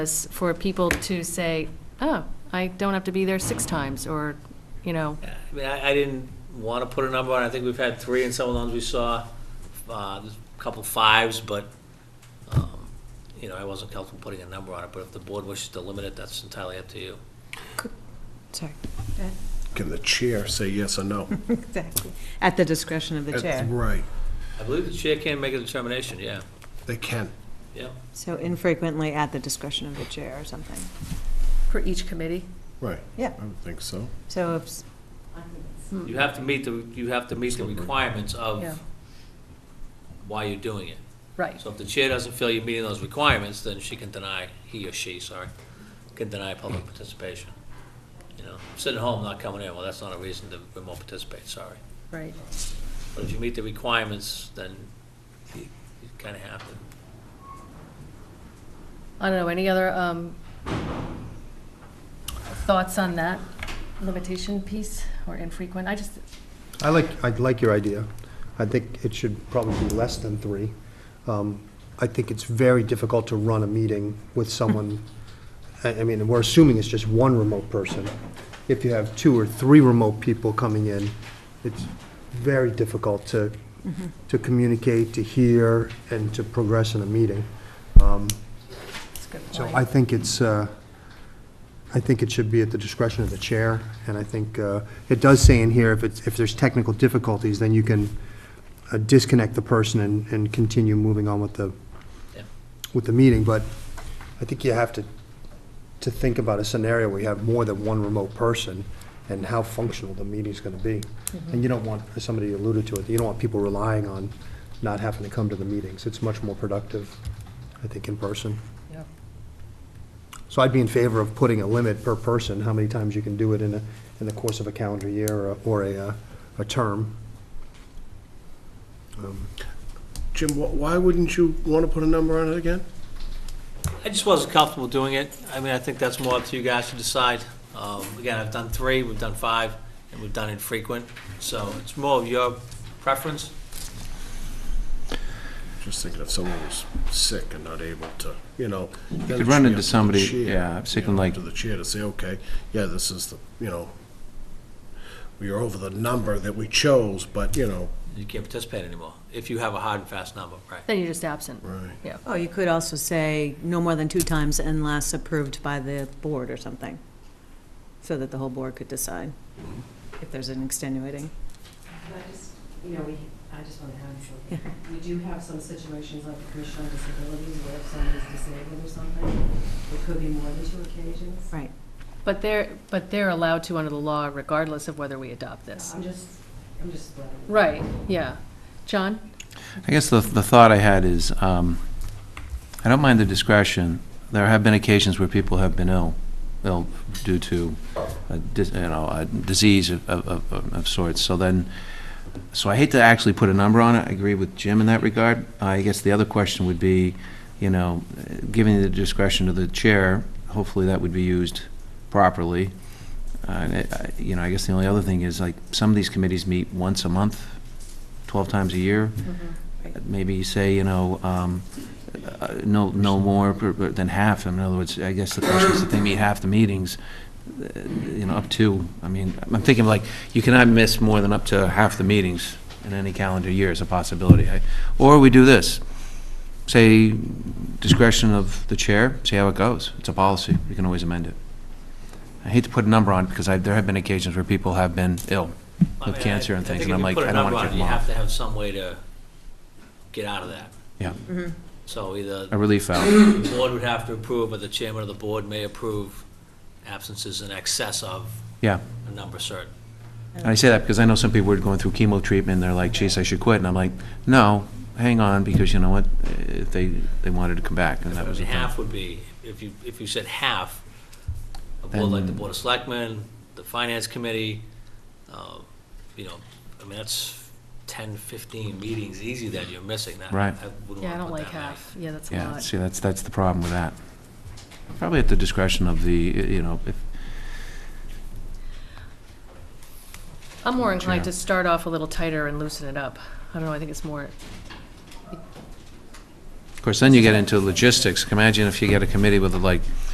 is for people to say, oh, I don't have to be there six times, or, you know, Yeah, I mean, I, I didn't want to put a number on, it. I think we've had three in some of the ones we saw, uh, there's a couple fives, but, um, you know, I wasn't comfortable putting a number on it, but if the board wishes to limit it, that's entirely up to you. Sorry, Can the chair say yes or no? exactly. At the discretion of the That's chair. Right, I believe the chair can make a determination, yeah, they can. yeah. So infrequently at the discretion of the chair or something. for each committee. Right. Yeah. I would think so. So if, s- You have to meet the, you have to meet the requirements Yeah. of why you're doing it. Right. So if the chair doesn't feel you're meeting those requirements, then she can deny, he or she, sorry, can deny public participation. You know, sitting at home, not coming in, well, that's not a reason to remote participate, sorry. Right. But if you meet the requirements, then you kind of have to. I don't know, any other um, thoughts on that limitation piece, or infrequent? I just, I like, I like your idea. I think it should probably be less than three. Um, I think it's very difficult to run a meeting with someone, I I mean, we're assuming it's just one remote person. If you have two or three remote people coming in, it's very difficult to, to communicate, to hear, and to progress in a meeting. Um, it's a good So point. I think it's, uh, I think it should be at the discretion of the chair, and I think uh, it does say in here, if it's, if there's technical difficulties, then you can uh, disconnect the person and, and continue moving on with the, Yeah. with the meeting, but I think you have to, to think about a scenario where you have more than one remote person, and how functional the meeting's gonna be. And you don't want, as somebody alluded to it, you don't want people relying on not having to come to the meetings. It's much more productive, I think, in person. Yeah. So I'd be in favor of putting a limit per person, how many times you can do it in a, in the course of a calendar year or, or a, uh, a term. Jim, wh- why wouldn't you want to put a number on it again? I just wasn't comfortable doing it. I mean, I think that's more up to you guys to decide. Um, Again, I've done three, we've done five, and we've done infrequent, so it's more of your preference. Just thinking if someone was sick and not able to, you know. then it could should run be into up to the somebody, chair, yeah, I'm you thinking know, like- To the chair to say, okay, yeah, this is the, you know, we are over the number that we chose, but, you know. You can't participate anymore, if you have a hard and fast number, right? Then you're just absent. Right. oh, you could also say no more than two times unless approved by the board or something, so that the whole board could decide if there's an extenuating. I just, you know, we, I just want to add something. We do have some situations like the Commission on Disabilities where if somebody's disabled or something, it could be more than two occasions. Right. But they're, but they're allowed to under the law regardless of whether we adopt this. I'm just, I'm just. letting you know. Right, yeah. John? I guess the, the thought I had is, um, I don't mind the discretion. There have been occasions where people have been ill, ill due to, a dis- you know, a disease of, of, of- of sorts. So then, so I hate to actually put a number on it. I agree with Jim in that regard. I guess the other question would be, you know, uh, giving the discretion to the chair, hopefully that would be used properly. Uh, And, it- I- you know, I guess the only other thing is, like, some of these committees meet once a month, 12 times a year Mm-hmm. maybe say, you know, um, uh, no, no more per- per- than half, in other words, I guess the question is if they meet half the meetings, uh, you know, up to, I mean, I'm thinking like, you cannot miss more than up to half the meetings in any calendar year is a possibility. I- Or we do this, say discretion of the chair, see how it goes, it's a policy, we can always amend it. I hate to put a number on, it because I, there have been occasions where people have been ill I mean, with I- cancer and I things, think and if I'm you like, put a I don't number want to on it, give them You have off. to have some way to get out of that. Yeah, Mm-hmm. Uh, So either a relief valve. the board would have to approve, or the chairman of the board may approve absences in excess of Yeah. a number certain. And I say that because I know some people were going through chemo treatment, and they're like, geez, I should quit, and I'm like, no, hang on, because you know what, Eh, they, they wanted to come back, and that I was mean, the thing. half would be, if you, if you said half, a board like the Then- Board of Selectmen, the Finance Committee, uh, you know, I mean, that's 10, 15 meetings easy that you're missing. That- Right. I wouldn't Yeah, I wanna don't put like that many. half. Yeah, that's a Yeah, lot. see, that's, that's the problem with that. Probably at the discretion of the, eh, you know, if, I'm more inclined Yeah. to start off a little tighter and loosen it up. I don't know, I think it's more, Of course, then you get into logistics. Imagine if you get a committee with like